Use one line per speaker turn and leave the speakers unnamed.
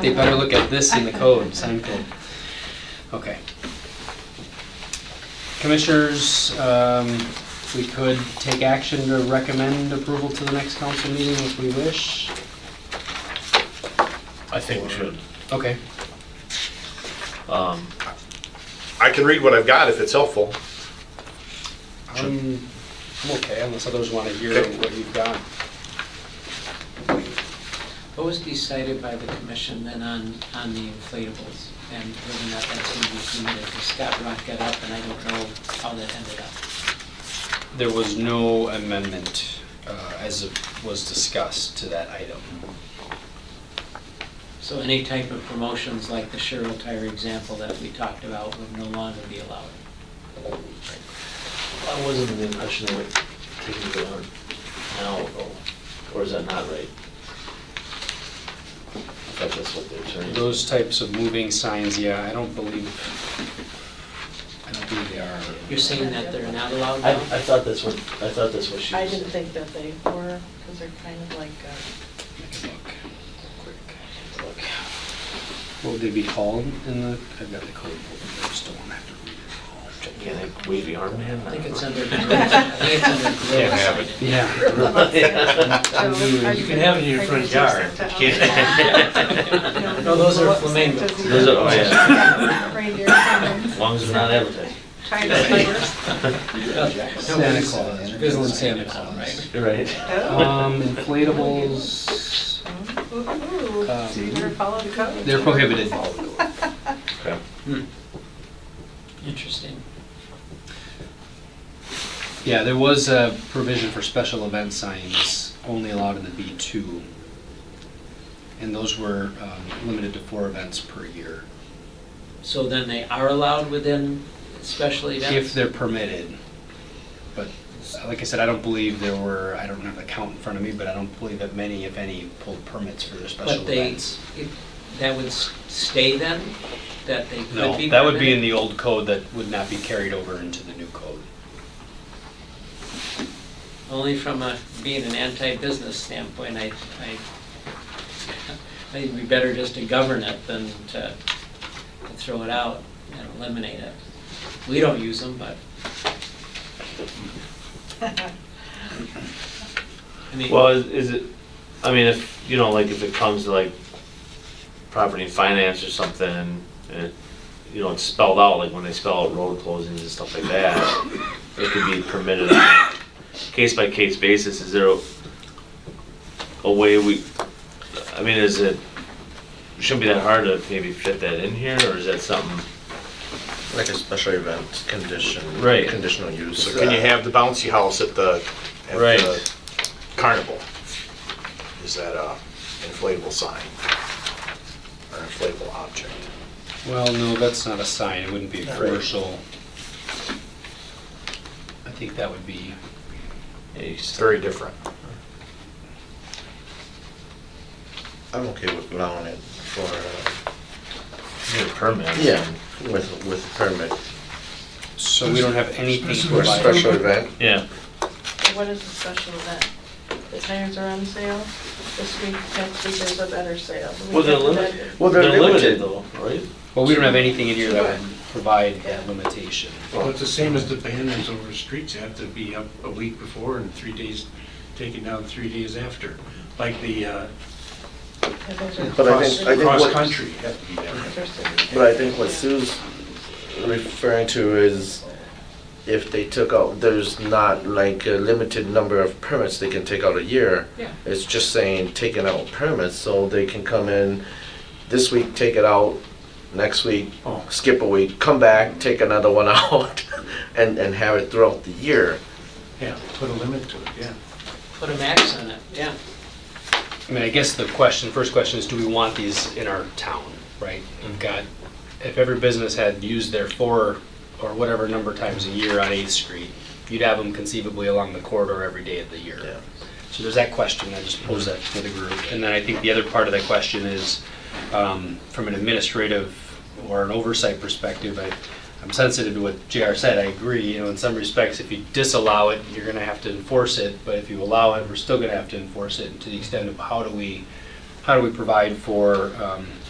They better look at this in the code, sign code. Okay. Commissioners, um, we could take action to recommend approval to the next council meeting if we wish.
I think we should.
Okay,
Um,
I can read what I've got if it's helpful.
I'm, Um, I'm okay unless others want to hear
Okay.
what you've got.
What was decided by the commission then on, on the inflatables and whether or not that's going to be permitted? 'Cause Scott brought that up and I don't know how that ended up.
There was no amendment uh, as it was discussed to that item.
So any type of promotions like the Cheryl Tire example that we talked about would no longer be allowed.
I wasn't under the impression they were taking it on now, though. or is that not right? I thought that's what the attorney.
Those types of moving signs, yeah, I don't believe, I don't believe they are.
You're saying that they're not allowed
I, I
now?
thought that's what, I thought that's what she
I
was.
didn't think that they were, because they're kind of like, uh,
Take a look. What would they be called in the, I've got the code, book, I just don't want to have to read it
Yeah, they wavy armband.
I think it's under, growth. I think it's under
Can't
growth
have it.
sign.
all. Yeah.
so are you
can have it in your
are you
front
gonna
yard.
do something
You
else?
can't-
No, those are
What scent
flamingos.
does he
Those are, oh, yeah.
have? Reindeer, salmon,
As long as we're not advertising.
China spiders.
Santa Claus. Visiting Santa Claus, right?
You're right.
Oh,
Um, inflatables,
Um,
ooh, ooh, ooh.
Um,
So you better follow the code.
they're prohibited.
Okay.
Interesting.
Yeah, there was a provision for special event signs only allowed in the B2. And those were um, limited to four events per year,
So then they are allowed within special
if
events?
they're permitted. But uh, like I said, I don't believe there were, I don't have the count in front of me, but I don't believe that many, if any, pulled permits for their special
But they,
events.
it- that would s- stay then, that they could be
No,
permitted?
that would be in the old code that would not be carried over into the new code.
Only from a, being an anti-business standpoint, I, I, I think it'd be better just to govern it than to to throw it out and eliminate it. We don't use them, but. I mean,
Well, is- is it, I mean, if, you know, like if it comes to like property and finance or something, and, it- you know, it's spelled out, like when they spell out road closings and stuff like that, it could be permitted on a case by case basis, is there a, a way we, I mean, is it, shouldn't be that hard to maybe fit that in here, or is that something?
Like a special event condition.
Right.
Conditional use.
So can you have the bouncy house at the, at
Right.
the carnival? Is that a inflatable sign? Or inflatable object?
Well, no, that's not a sign, it wouldn't be a commercial. I think that would be,
Yeah, you
It's
just-
very different.
I'm okay with allowing it for, uh,
you Need a permit.
yeah, with, with permit.
so we don't have anything
For a
provided.
special event,
Yeah,
What is a special event? The tires are on sale, this week, next week there's a better sale. The
Well, they're
weekend-
limited.
Well, they're limited.
Though, right?
Well, we don't have anything in here that would provide that limitation.
Well, it's the same as the banners over the streets have to be up a week before and three days, taken down three days after. Like the uh,
Yeah, those are-
But I
cross,
think- I think what-
cross-country have to be down.
Those are-
but I think what Sue's referring to is if they took out, there's not like a limited number of permits they can take out a year.
Yeah.
It's just saying taking out permits, so they can come in this week, take it out, next week,
Oh.
skip a week, come back, take another one out, and, and have it throughout the year.
Yeah, put a limit to it, yeah.
put a max on it, yeah.
I mean, I guess the question, first question is, do we want these in our town, right? We've got, if every business had used their four or whatever number times a year on Eighth Street, you'd have them conceivably along the corridor every day of the year.
Yeah.
So there's that question, I just posed that to the group. And then I think the other part of that question is, um, from an administrative or an oversight perspective, I, I'm sensitive to what JR said, I agree, you know, in some respects, if you disallow it, you're gonna have to enforce it, but if you allow it, we're still gonna have to enforce it, and to the extent of how do we, how do we provide for, um,